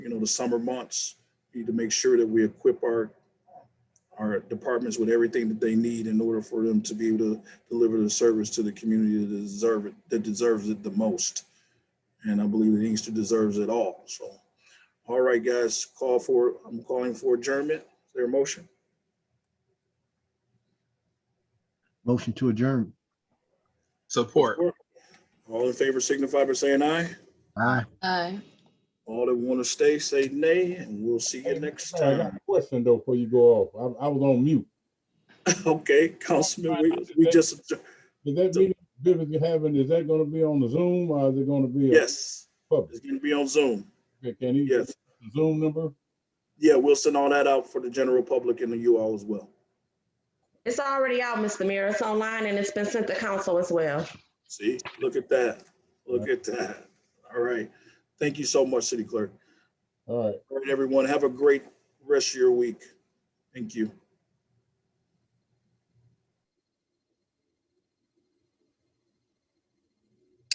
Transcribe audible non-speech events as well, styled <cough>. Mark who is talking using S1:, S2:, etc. S1: the summer months, we need to make sure that we equip our, our departments with everything that they need in order for them to be able to deliver the service to the community that deserve it, that deserves it the most. And I believe that Inkster deserves it all, so. All right, guys, call for, I'm calling for adjournment. Is there a motion?
S2: Motion to adjourn.
S3: Support.
S1: All in favor signify by saying aye.
S2: Aye.
S4: Aye.
S1: All that want to stay, say nay, and we'll see you next
S5: Hey, I got
S1: time. <laughs>
S5: a question though before you go off. I, I was on mute.
S1: Okay, Councilman, we, we just, adjour-
S5: Is that meeting Vivica you're having, is that gonna be on the Zoom or is it gonna be? a
S1: yes,
S5: Public,
S1: it's gonna be on Zoom.
S5: can he?
S1: Yes,
S5: Zoom number?
S1: yeah, we'll send all that out for the general public and the you all as well.
S6: It's already out, Mr. Mayor. It's online and it's been sent to council as well.
S1: See, look at that. Look at that. All right. Thank you so much, City Clerk.
S5: All right.
S1: All right, everyone, have a great rest of your week. Thank you.